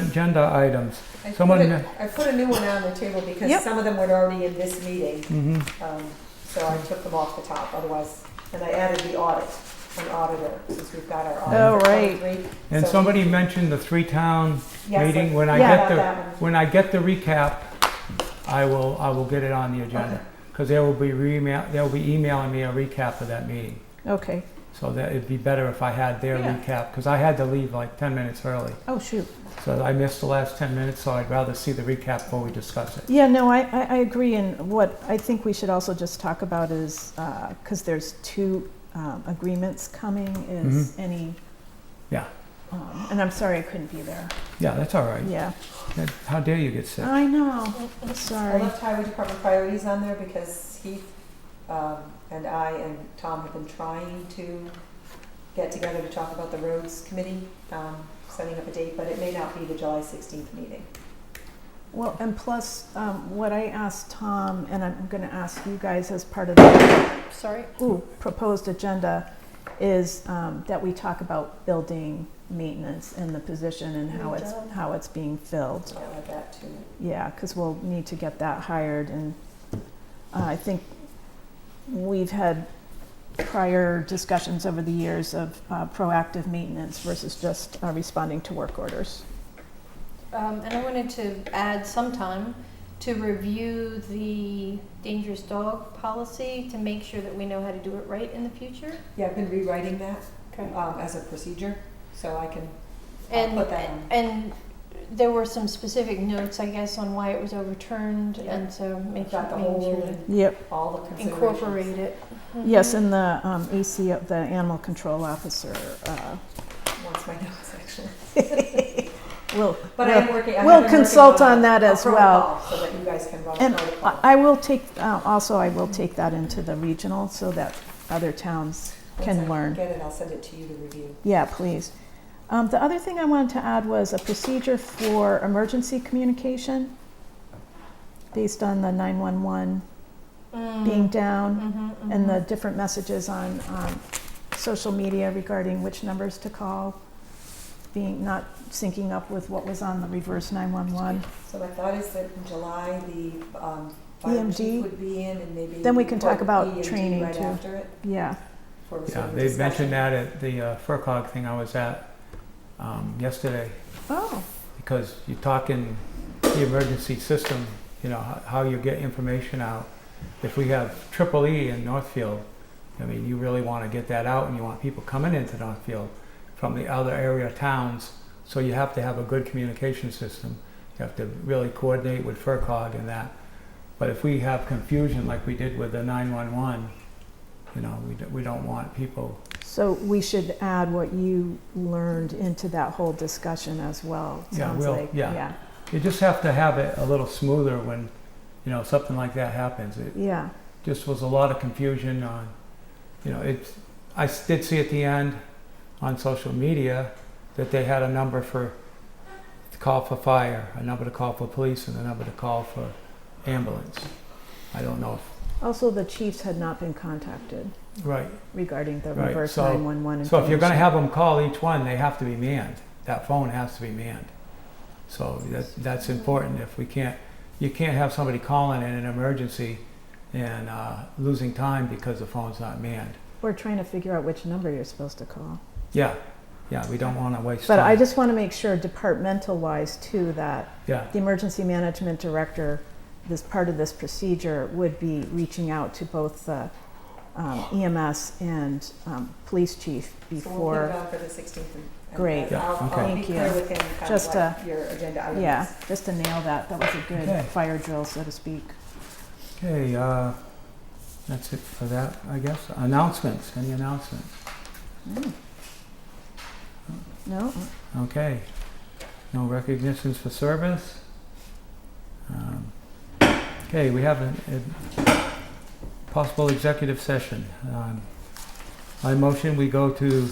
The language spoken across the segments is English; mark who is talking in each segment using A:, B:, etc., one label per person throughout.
A: agenda items.
B: I put
A: Someone-
B: it- I put a new one on the table
C: Yep.
B: because some of them were already in this meeting,
A: Mhm.
B: um, so I took them off the top, otherwise, and I added the audit, an auditor, since we've got our
C: Oh,
B: auditor
C: right.
B: twenty-three.
A: And
B: So-
A: somebody mentioned the three-town
B: Yes, I
A: meeting. When I
B: forgot
A: get
B: about
A: the,
B: that one.
A: when I get the recap, I will, I will get it on the agenda. Because they will be re they'll be emailing me a recap of that meeting.
C: Okay.
A: So that it'd be better if I had their
C: Yeah.
A: recap, because I had to leave like 10 minutes early.
C: Oh, shoot.
A: So I missed the last 10 minutes, so I'd rather see the recap before we discuss it.
C: Yeah, no, I, I, I agree. And what I think we should also just talk about is, because there's two um, agreements coming, is any.
A: Yeah.
C: Um, and I'm sorry I couldn't be there.
A: Yeah, that's all right.
C: Yeah.
A: That- How dare you get
B: Oh.
A: sick?
C: I know. I'm
B: I
C: sorry.
B: left highway department priorities on there because Heath, um, and I and Tom have been trying to get together to talk about the roads committee, um, setting up a date, but it may not be the July sixteenth meeting.
C: Well, and plus, um, what I asked Tom, and I'm going to ask you guys as part of the
D: Sorry.
C: ooh, proposed agenda, is um, that we talk about building maintenance and the position and how it's
D: Good job.
C: how it's being filled.
B: So I'll add that to
C: Yeah, because we'll need to get that hired, and uh, I think we've had prior discussions over the years of uh, proactive maintenance versus just uh, responding to work orders.
D: Um, and I wanted to add some time to review the dangerous dog policy to make sure that we know how to do it right in the future.
B: Yeah, I've been rewriting that,
D: Okay.
B: um, as a procedure, so I can, I'll
D: And,
B: put that on.
D: and there were some specific notes, I guess, on why it was overturned,
B: Yeah.
D: and so make
B: Got the
D: making sure
B: whole,
D: to
C: Yep.
B: all the considerations.
D: incorporate it.
C: Yes,
D: Mhm.
C: and the um, ACO, the animal control officer, uh,
B: Wants my notes, actually.
C: will.
B: But I
C: will-
B: am working, I have
C: we'll
B: been working
C: consult on that
B: a
C: as well.
B: protocol So that you guys can run
C: And
B: a protocol.
C: I I will take, uh, also, I will take that into the regional so that other towns
B: Once
C: can
B: I
C: learn.
B: Get it, I'll send it to you to review.
C: Yeah, please. Um, the other thing I wanted to add was a procedure for emergency communication based on the 911
D: Mm.
C: being down
D: Mhm,
C: and the
D: mhm.
C: different messages on um, social media regarding which numbers to call being not syncing up with what was on the reverse 911.
B: So my thought is that in July, the, um, fire
C: EMG?
B: chief would be in and maybe.
C: E Then we can talk
B: put
C: about
B: EMG
C: training,
B: right
C: too.
B: after it
C: Yeah.
B: for sort
A: Yeah,
B: of
A: they
B: discussion.
A: mentioned that at the uh, FERCog thing I was at um, yesterday.
C: Oh.
A: because you're talking the emergency system, you know, how, how you get information out. If we have triple E in Northfield, I mean, you really want to get that out and you want people coming into Northfield from the other area towns. So you have to have a good communication system. You have to really coordinate with FERCog and that. But if we have confusion like we did with the 911, you know, we, do, we don't want people.
C: So we should add what you learned into that whole discussion as well.
A: Yeah,
C: Sounds
A: we'll-
C: like.
A: yeah.
C: Yeah.
A: You just have to have it a little smoother when, you know, something like that happens. It,
C: Yeah.
A: just was a lot of confusion on, you know, it's, I s- did see at the end on social media that they had a number for, to call for fire, a number to call for police, and a number to call for ambulance. I don't know
C: Also, the chiefs had not been contacted.
A: if, right,
C: regarding the
A: Right,
C: reverse
A: so-
C: 911
A: so if you're gonna
C: information.
A: have them call each one, they have to be manned. That phone has to be manned. So that's, that's important if we can't, you can't have somebody calling in an emergency and, uh, losing time because the phone's not manned.
C: We're trying to figure out which number you're supposed to call.
A: Yeah, yeah, we don't wanna waste time.
C: But I just want to make sure departmental wise too, that
A: Yeah,
C: the emergency management director, this part of this procedure would be reaching out to both the um, EMS and um, police chief
B: So we'll put it
C: before,
B: on for the sixteenth. uh,
C: Great.
A: Yeah,
B: I'll,
A: okay.
B: I'll be
C: Thank you.
B: clear with him kind
C: Just,
B: of
C: uh,
B: what your agenda items.
C: yeah, just to nail that. That was a good
A: Okay.
C: fire drill, so to speak.
A: okay, uh, that's it for that, I guess. Announcements, any announcements? Hmm.
C: Mm. No?
A: Okay. No recognitions for service? Um, Okay, we have a, a possible executive session. Um, I motion we go to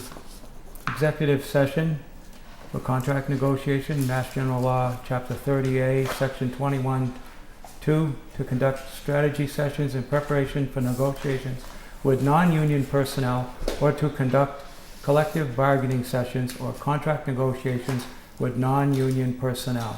A: executive session for contract negotiation, Mass General Law, Chapter 30A, Section 21, 2, to conduct strategy sessions in preparation for negotiations with non-union personnel or to conduct collective bargaining sessions or contract negotiations with non-union personnel.